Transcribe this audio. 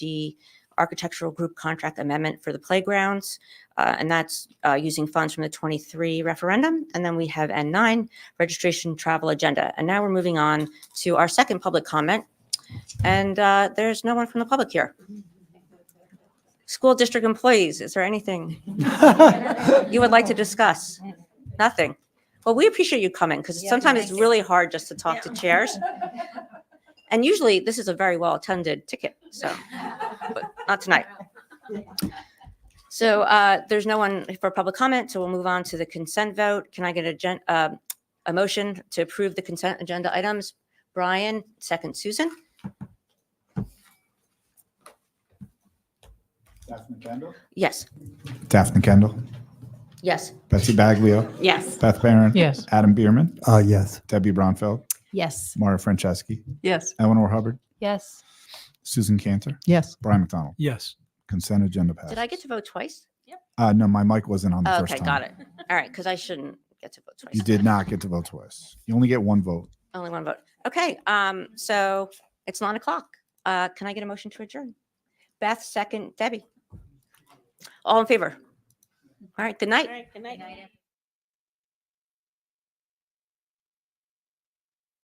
the architectural group contract amendment for the playgrounds. uh, and that's uh, using funds from the 23 referendum. And then we have N9, registration travel agenda. And now we're moving on to our second public comment. And uh, there's no one from the public here. School district employees, is there anything you would Oh. like to discuss? Nothing. Well, we appreciate you coming because Yeah, sometimes it's thank really hard just to talk to chairs. And usually this is a very well attended ticket, so, but not tonight. So uh, there's no one for public comment, so we'll move on to the consent vote. Can I get a gen, uh, a motion to approve the consent agenda items? Brian, second Susan, Daphne Kendall. yes, Daphne Kendall. yes, Betsy Baglio. yes, Beth Barron. Yes. Adam Bierman. Uh, yes. Debbie Bronfeld. Yes. Maura Franceschi. Yes. Eleanor Hubbard. Yes. Susan Cantor. Yes. Brian McDonald. Yes. Consent agenda passed. did I get to vote twice? Oh, Uh, no, my mic wasn't on the first Okay, time. got it, all right, because I shouldn't get to vote twice. You did not get to vote twice. You only get one vote. Only one vote. Okay, um, so it's nine o'clock. Uh, can I get a motion to adjourn? Beth, second, Debbie. All in favor? All right, good night. Good night.